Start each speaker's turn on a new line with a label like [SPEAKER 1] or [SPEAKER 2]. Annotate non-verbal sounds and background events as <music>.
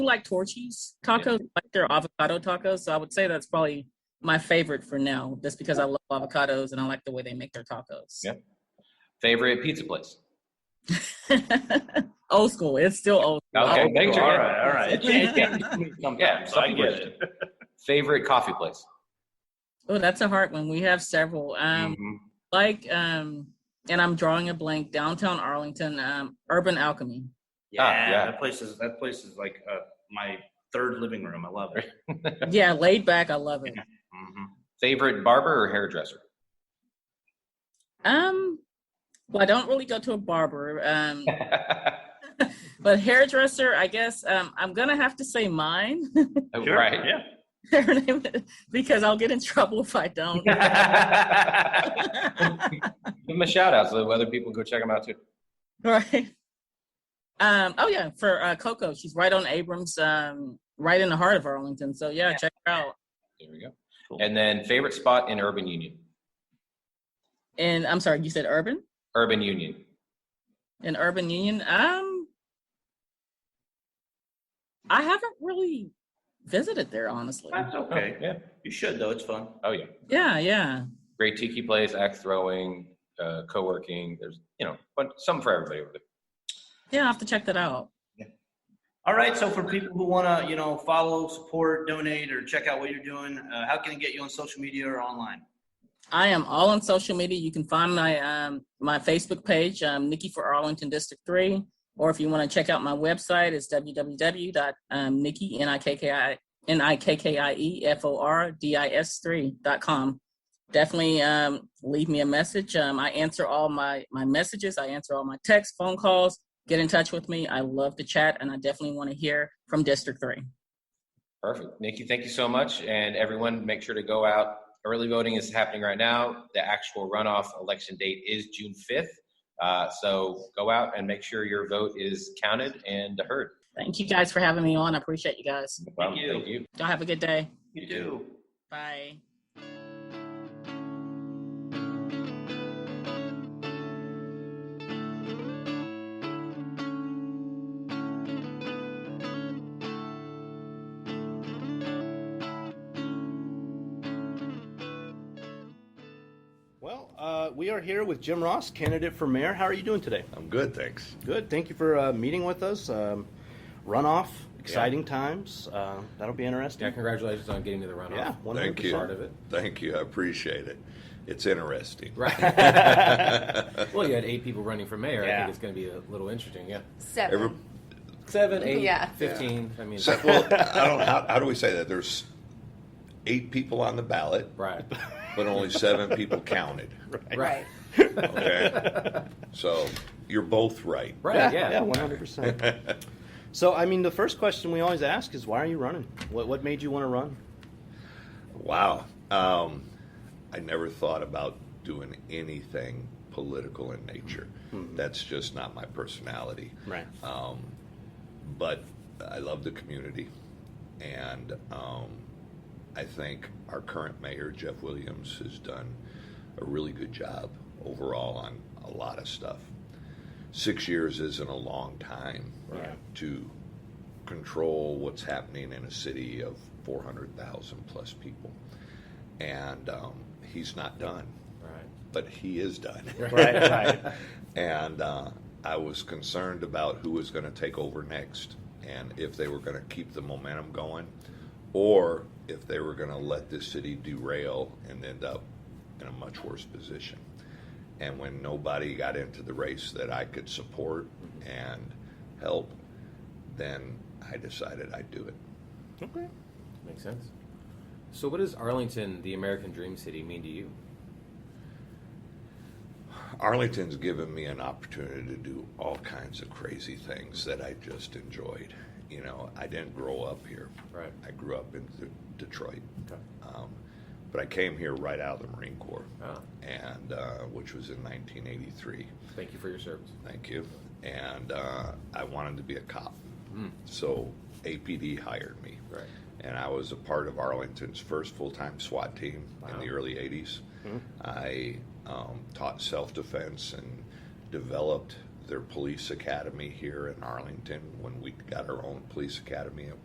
[SPEAKER 1] like torchies tacos, like they're avocado tacos. So I would say that's probably my favorite for now, just because I love avocados and I like the way they make their tacos.
[SPEAKER 2] Yeah. Favorite pizza place?
[SPEAKER 1] <laughs> old school. It's still old. School.
[SPEAKER 2] Okay,
[SPEAKER 3] Oh,
[SPEAKER 2] thank you.
[SPEAKER 3] All right, all
[SPEAKER 2] It <laughs>
[SPEAKER 3] right.
[SPEAKER 2] can't-
[SPEAKER 3] <laughs>
[SPEAKER 2] it can't be something- yeah,
[SPEAKER 3] So I
[SPEAKER 2] something
[SPEAKER 3] get
[SPEAKER 2] weird.
[SPEAKER 3] it.
[SPEAKER 2] Favorite coffee place?
[SPEAKER 1] Oh, that's a hard one. We have several.
[SPEAKER 3] Mm-hmm.
[SPEAKER 1] Um,
[SPEAKER 2] Mm-hmm.
[SPEAKER 1] like um, and I'm drawing a blank. Downtown Arlington, um, Urban Alchemy.
[SPEAKER 3] Yeah,
[SPEAKER 2] Ah, yeah.
[SPEAKER 3] that place is that place is like uh, my third living room. I love it.
[SPEAKER 1] yeah, laid back. I love it.
[SPEAKER 3] hmm
[SPEAKER 2] Favorite barber or
[SPEAKER 3] <laughs>
[SPEAKER 2] hairdresser?
[SPEAKER 1] Um, well, I don't really go to a barber. Um, but hairdresser, I guess um, I'm gonna have to say mine. <laughs>
[SPEAKER 2] Oh, Right.
[SPEAKER 3] Yeah.
[SPEAKER 1] Her name is- because I'll get in trouble if I don't.
[SPEAKER 2] <laughs> Give them a shout out so other people go check them out too.
[SPEAKER 1] <laughs> right. Um, oh yeah, for uh, Coco, she's right on Abrams, um, right in the heart of Arlington. So yeah, check her out.
[SPEAKER 2] There we go.
[SPEAKER 3] Cool.
[SPEAKER 2] And then favorite spot in Urban Union?
[SPEAKER 1] And I'm sorry, you said Urban
[SPEAKER 2] Urban Union.
[SPEAKER 1] in Urban Union. Um, I haven't really visited there honestly.
[SPEAKER 3] That's
[SPEAKER 2] Oh.
[SPEAKER 3] Oh, okay.
[SPEAKER 2] Yeah.
[SPEAKER 3] You should though. It's fun.
[SPEAKER 2] Oh yeah.
[SPEAKER 1] Yeah, yeah,
[SPEAKER 2] Great tiki place, axe throwing, uh, co-working. There's you know, but some for everybody over there.
[SPEAKER 1] yeah. I have to check that out.
[SPEAKER 3] All right. So for people who want to, you know, follow, support, donate, or check out what you're doing, uh, how can they get you on social media or online?
[SPEAKER 1] I am all on social media. You can find my um, my Facebook page, um, Nikki for Arlington District 3. Or if you want to check out my website, it's www.nikki, um, N-I-K-K-I, E N-I-K-K-I-E-F-O-R-D-I-S-3.com. Definitely um, leave me a message. Um, I answer all my, my messages. I answer all my texts, phone calls. Get in touch with me. I love to chat, and I definitely want to hear from District 3.
[SPEAKER 2] Perfect. Nikki, thank you so much. And everyone, make sure to go out. Early voting is happening right now. The actual runoff election date is June 5th. Uh, so go out and make sure your vote is counted and heard.
[SPEAKER 1] Thank you guys for having me on. I appreciate you guys.
[SPEAKER 2] No problem.
[SPEAKER 3] you.
[SPEAKER 2] Thank you.
[SPEAKER 1] Y'all have a good day.
[SPEAKER 3] You do.
[SPEAKER 1] Bye.
[SPEAKER 3] Well, uh, we are here with Jim Ross, candidate for mayor. How are you doing today?
[SPEAKER 4] I'm good, thanks.
[SPEAKER 3] Good. Thank you for uh, meeting with us. Um, runoff, exciting times. Uh, that'll be interesting.
[SPEAKER 2] Yeah, congratulations on getting to the runoff.
[SPEAKER 3] Yeah, one hundred
[SPEAKER 4] Thank you.
[SPEAKER 3] percent.
[SPEAKER 2] Part of it.
[SPEAKER 4] Thank you. I appreciate it. It's interesting.
[SPEAKER 2] <laughs>
[SPEAKER 3] <laughs>
[SPEAKER 2] Right. well, you had eight people running for mayor. I
[SPEAKER 3] Yeah.
[SPEAKER 2] think it's going to be a little interesting. Yeah.
[SPEAKER 5] Seven.
[SPEAKER 4] Every-
[SPEAKER 2] Seven, eight,
[SPEAKER 5] Yeah.
[SPEAKER 2] 15. I mean,
[SPEAKER 4] so- well, I don't. How, how do we say that? There's eight people on the ballot,
[SPEAKER 2] right.
[SPEAKER 4] but only seven
[SPEAKER 2] <laughs>
[SPEAKER 4] people counted.
[SPEAKER 5] right.
[SPEAKER 4] Okay. So you're both right.
[SPEAKER 2] Right.
[SPEAKER 3] Yeah,
[SPEAKER 2] Yeah.
[SPEAKER 3] yeah, one hundred percent. So, I mean, the first question we always ask is, why are you running? What what made you want to run?
[SPEAKER 4] Wow. Um, I never thought about doing anything political in nature.
[SPEAKER 2] Hmm.
[SPEAKER 4] That's just not my personality.
[SPEAKER 3] Right.
[SPEAKER 4] Um, but I love the community, and um, I think our current mayor Jeff Williams has done a really good job overall on a lot of stuff. Six years isn't a long time
[SPEAKER 3] Right.
[SPEAKER 4] to control what's happening in a city of 400,000 plus people, and um, he's not done,
[SPEAKER 2] Right.
[SPEAKER 4] but he is done
[SPEAKER 3] right. Right.
[SPEAKER 4] and uh, I was concerned about who was going to take over next and if they were going to keep the momentum going or if they were going to let this city derail and end up in a much worse position. And when nobody got into the race that I could support and help, then I decided I'd do it.
[SPEAKER 3] Okay.
[SPEAKER 2] Makes sense. So, what does Arlington, the American Dream City, mean to you?
[SPEAKER 4] Arlington's given me an opportunity to do all kinds of crazy things that I just enjoyed. You know, I didn't grow up here.
[SPEAKER 2] Right.
[SPEAKER 4] I grew up in De- Detroit,
[SPEAKER 2] Okay.
[SPEAKER 4] um, but I came here right out of the Marine Corps,
[SPEAKER 2] Ah,
[SPEAKER 4] and uh, which was in 1983.
[SPEAKER 2] thank you for your service.
[SPEAKER 4] Thank you. And uh, I wanted to be a cop,
[SPEAKER 2] Mm.
[SPEAKER 4] so APD hired me,
[SPEAKER 2] Right.
[SPEAKER 4] and I was a part of Arlington's first full-time SWAT team in the
[SPEAKER 2] Wow. Hmm.
[SPEAKER 4] early 80s. I um, taught self-defense and developed their police academy here in Arlington when we got our own police academy at